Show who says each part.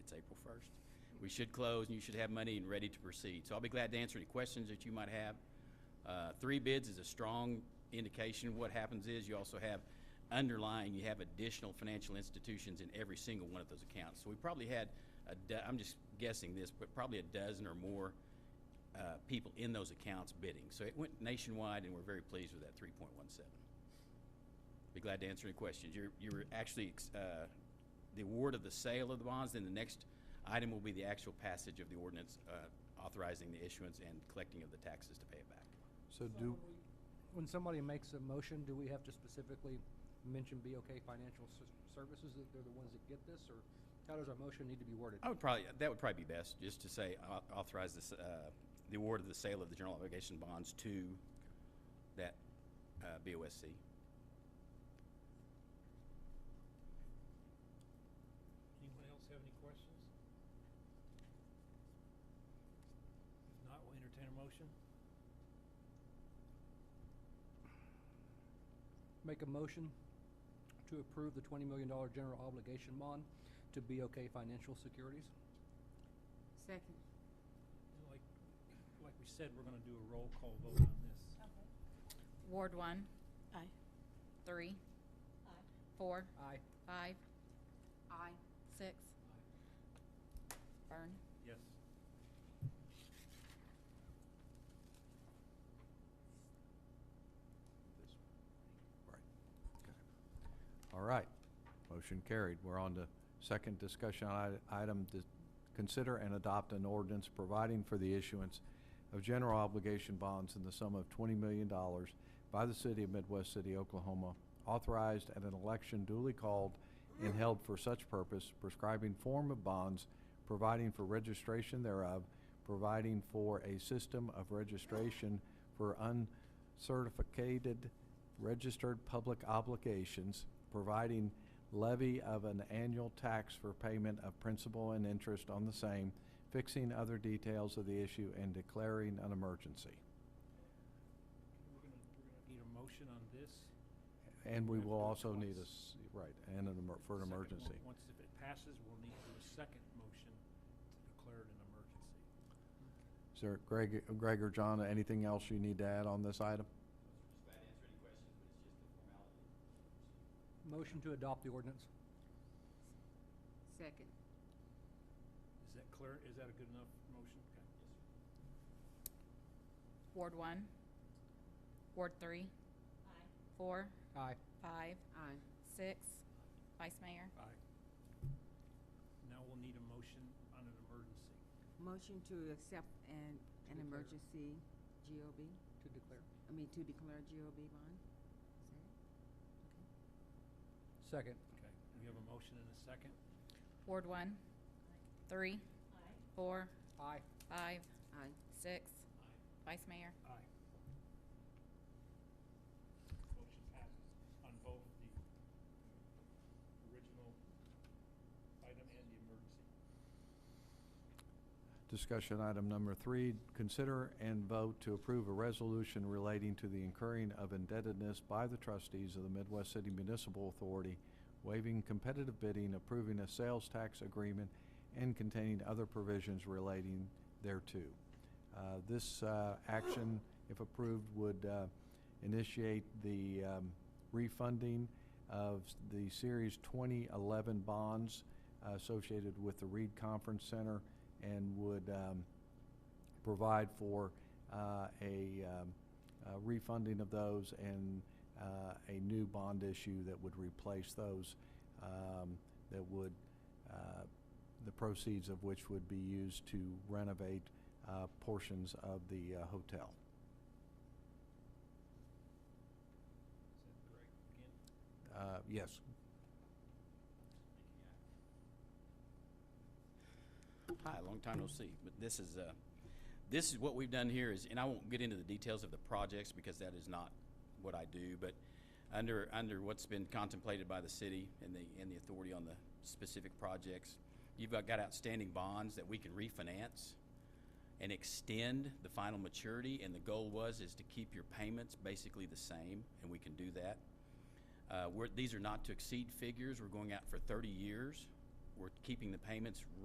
Speaker 1: April 1st. We should close, and you should have money and ready to proceed. So I'll be glad to answer any questions that you might have. Uh, Three bids is a strong indication. What happens is you also have underlying, you have additional financial institutions in every single one of those accounts. So we probably had, a do- I'm just guessing this, but probably a dozen or more uh, people in those accounts bidding. So it went nationwide, and we're very pleased with that 3.17. Be glad to answer any questions. You're, you're actually, uh, the award of the sale of the bonds, then the next item will be the actual passage of the ordinance uh, authorizing the issuance and collecting of the taxes to pay it back.
Speaker 2: So do,
Speaker 3: When somebody makes a motion, do we have to specifically mention BOK Financial S- Services, that they're the ones that get this, or how does our motion need to be worded?
Speaker 1: I would probably, that would probably be best, just to say au- authorize this, uh, the award of the sale of the general obligation bonds to that uh, BOSC.
Speaker 4: Anyone else have any questions? If not, we'll entertain a motion.
Speaker 3: Make a motion to approve the $20 million general obligation bond to BOK Financial Securities?
Speaker 5: Second.
Speaker 4: And Like, like we said, we're gonna do a roll call vote on this.
Speaker 6: Ward one,
Speaker 5: Aye.
Speaker 6: three, four,
Speaker 3: Aye.
Speaker 6: five,
Speaker 5: Aye.
Speaker 6: six. Byrne?
Speaker 4: Yes.
Speaker 2: right, okay. All right, motion carried. We're on to second discussion i- item, to consider and adopt an ordinance providing for the issuance of general obligation bonds in the sum of $20 million by the city of Midwest City, Oklahoma, authorized at an election duly called and held for such purpose, prescribing form of bonds, providing for registration thereof, providing for a system of registration for uncertificated registered public obligations, providing levy of an annual tax for payment of principal and interest on the same, fixing other details of the issue, and declaring an emergency.
Speaker 4: We're gonna, we're gonna need a motion on this.
Speaker 2: And we will also need a,
Speaker 4: Twice.
Speaker 2: s- right, and an emer- for an
Speaker 4: Second,
Speaker 2: emergency.
Speaker 4: on- Once, if it passes, we'll need to do a second motion to declare it an emergency.
Speaker 2: Is there, Greg, Greg or John, anything else you need to add on this item?
Speaker 1: Just glad to answer any questions, but it's just a formality.
Speaker 3: Motion to adopt the ordinance?
Speaker 5: Second.
Speaker 4: Is that clear? Is that a good enough motion? Okay.
Speaker 6: Ward one, Ward three. Four,
Speaker 3: Aye.
Speaker 6: five,
Speaker 5: Aye.
Speaker 6: six. Vice Mayor?
Speaker 4: Aye. Now we'll need a motion on an emergency.
Speaker 5: Motion to accept an, an
Speaker 3: declare.
Speaker 5: emergency GOB,
Speaker 3: To declare.
Speaker 5: I mean, to declare GOB bond? Is that
Speaker 3: Second.
Speaker 5: it?
Speaker 4: Okay, we have a motion and a second.
Speaker 6: Ward one, three, four,
Speaker 3: Aye.
Speaker 6: five,
Speaker 5: Aye.
Speaker 6: six. Vice Mayor?
Speaker 4: Aye. Motion passes on both the original item and the emergency.
Speaker 2: Discussion item number three, consider and vote to approve a resolution relating to the incurring of indebtedness by the trustees of the Midwest City Municipal Authority, waiving competitive bidding, approving a sales tax agreement, and containing other provisions relating thereto. Uh, This uh, action, if approved, would uh, initiate the um, refunding of s- the Series 2011 bonds uh, associated with the Reed Conference Center and would um, provide for uh, a um, uh, refunding of those and uh, a new bond issue that would replace those, um, that would, uh, the proceeds of which would be used to renovate uh, portions of the uh, hotel.
Speaker 4: Is that correct? Again?
Speaker 2: Uh, Yes,
Speaker 1: Hi, long time no see. But this is, uh, this is what we've done here is, and I won't get into the details of the projects because that is not what I do, but under, under what's been contemplated by the city and the, and the authority on the specific projects, you've got outstanding bonds that we can refinance and extend the final maturity, and the goal was is to keep your payments basically the same, and we can do that. Uh, we're, these are not to exceed figures. We're going out for 30 years. We're keeping the payments